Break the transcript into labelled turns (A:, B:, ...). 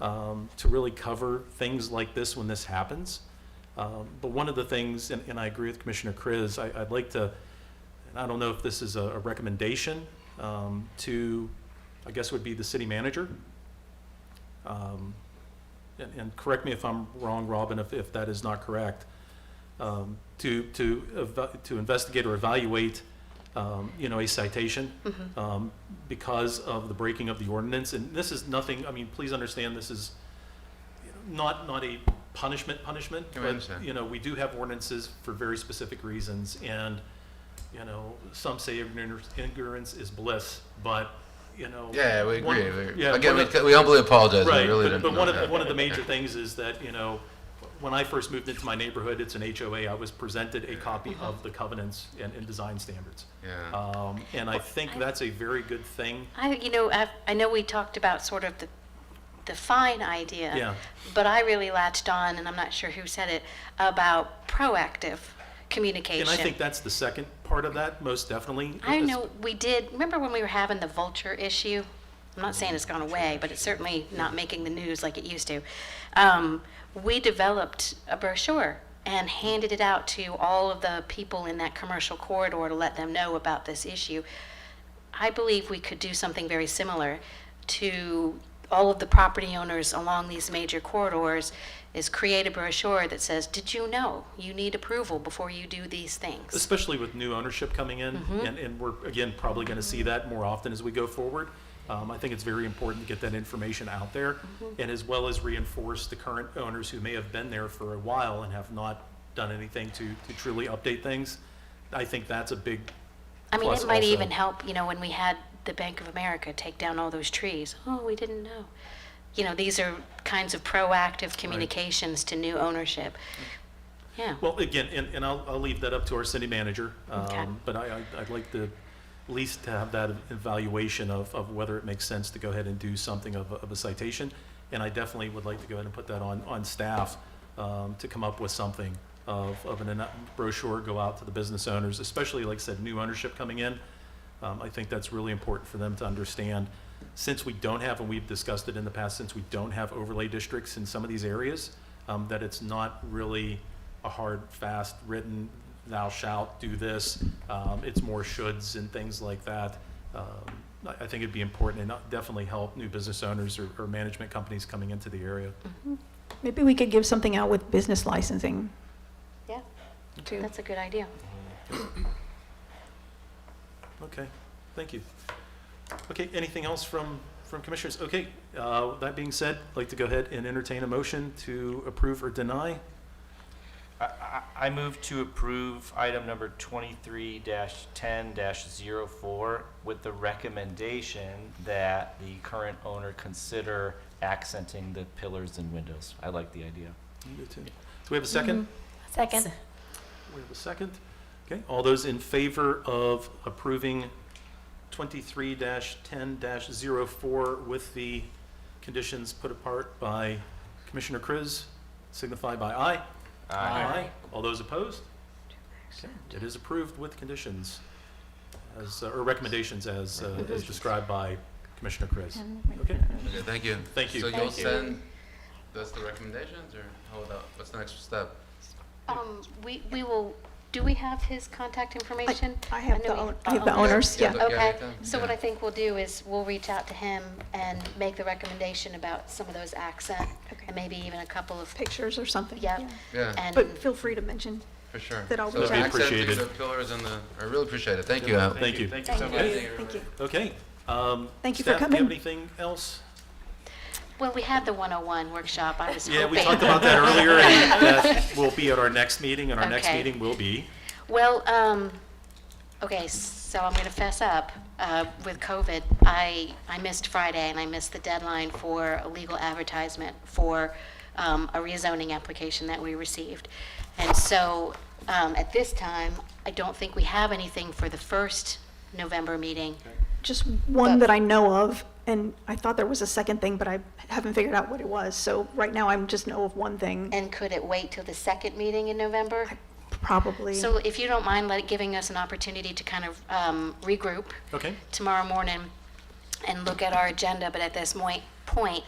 A: um, to really cover things like this when this happens. Um, But one of the things, and and I agree with Commissioner Chris, I- I'd like to, and I don't know if this is a a recommendation um, to, I guess would be the city manager. Um, And, and correct me if I'm wrong, Robin, if, if that is not correct, um, to, to, eva- to investigate or evaluate, um, you know, a citation um, because of the breaking of the ordinance. And this is nothing, I mean, please understand, this is not, not a punishment punishment.
B: I
A: but,
B: understand.
A: You know, we do have ordinances for very specific reasons. And, you know, some say ignorance ignorance is bliss, but, you know.
B: Yeah, we
A: one-
B: agree. We-
A: yeah,
B: Again,
A: one
B: we,
A: of-
B: we humbly apologize.
A: Right,
B: we really
A: but,
B: didn't
A: but
B: know
A: one of, the-
B: that.
A: one of the major things is that, you know, when I first moved into my neighborhood, it's an HOA, I was presented a copy
C: Mm-hmm.
A: of the covenants and, and design standards.
B: Yeah.
A: Um, and I think that's a very good thing.
C: I, you know, I've, I know we talked about sort of the, the fine idea.
A: Yeah.
C: But I really latched on, and I'm not sure who said it, about proactive communication.
A: And I think that's the second part of that, most definitely.
C: I
A: is-
C: know we did, remember when we were having the vulture issue? I'm not saying it's gone away, but it's certainly not making the news like it used to. Um, we developed a brochure and handed it out to all of the people in that commercial corridor to let them know about this issue. I believe we could do something very similar to all of the property owners along these major corridors is create a brochure that says, did you know you need approval before you do these things? Mm-hmm.
A: especially with new ownership coming in, and, and we're, again, probably gonna see that more often as we go forward. Um, I think it's very important to get that information out there,
C: Mm-hmm.
A: and as well as reinforce the current owners who may have been there for a while and have not done anything to, to truly update things. I think that's a big,
C: I mean,
A: Plus
C: it might
A: also-
C: even help, you know, when we had the Bank of America take down all those trees. Oh, we didn't know. You know, these are kinds of proactive communications to new ownership. Yeah.
A: well, again, and, and I'll, I'll leave that up to our city manager.
C: Okay.
A: Um, but I, I- I'd like to at least to have that evaluation of, of whether it makes sense to go ahead and do something of, a- of a citation. And I definitely would like to go ahead and put that on, on staff, um, to come up with something of, of an anno- brochure, go out to the business owners, especially, like I said, new ownership coming in. Um, I think that's really important for them to understand. Since we don't have, and we've discussed it in the past, since we don't have overlay districts in some of these areas, um, that it's not really a hard, fast, written, thou shalt do this. Um, it's more shoulds and things like that. Um, I, I think it'd be important and definitely help new business owners or, or management companies coming into the area.
D: Maybe we could give something out with business licensing.
C: Yeah,
D: too.
C: that's a good idea.
A: Okay, thank you. Okay, anything else from, from commissioners? Okay, uh, that being said, I'd like to go ahead and entertain a motion to approve or deny.
E: I- I I move to approve item number 23-10-04 with the recommendation that the current owner consider accenting the pillars and windows. I like the idea.
A: You do too. Do we have a second?
F: Second.
A: We have a second. Okay, all those in favor of approving twenty-three ten 4 with the conditions put apart by Commissioner Kriz, signify by aye. All those opposed? Okay, It is approved with conditions, as, uh, or recommendations as, uh, as described by Commissioner Kriz. Okay,
B: Okay, thank you.
A: Thank you.
B: So you'll
C: Thank you.
B: send us the recommendations, or how about what's the next step?
C: Um, we, we will, do we have his contact information?
D: I have
C: know
D: the
C: we-
D: own- I have the owners,
B: Yeah,
D: yeah.
B: the-
C: Okay,
B: everything,
C: so what
B: yeah.
C: I think we'll do is we'll reach out to him and make the recommendation about some of those accent
D: Okay.
C: and maybe even a couple of,
D: Pictures or something.
C: yep.
B: Yeah.
C: and-
D: But feel free to mention.
B: For sure.
D: That I'll
B: So
D: reach out.
B: accent,
A: Appreciated.
B: The pillars and the, I really appreciate it. Thank you. Al.
A: thank you.
E: Thank you so
C: Thank
E: much.
C: you.
D: Thank you.
A: Okay. um,
D: Thank you for
A: Staff, do you have
D: coming.
A: anything else?
C: Well, we had the 101 workshop, I was hoping.
A: Yeah, we talked about that earlier, and uh, that will be at our next meeting, and our next
C: Okay.
A: meeting will be,
C: Well, um, okay, so I'm gonna fess up, uh, with COVID. I, I missed Friday and I missed the deadline for a legal advertisement for, um, a rezoning application that we received. And so, um, at this time, I don't think we have anything for the first November meeting.
D: Just one
C: But-
D: that I know of, and I thought there was a second thing, but I haven't figured out what it was. So right now, I'm just know of one thing,
C: And could it wait till the second meeting in November?
D: probably.
C: So if you don't mind, let, giving us an opportunity to kind of, um, regroup.
A: okay?
C: tomorrow morning and look at our agenda, but at this moi- point,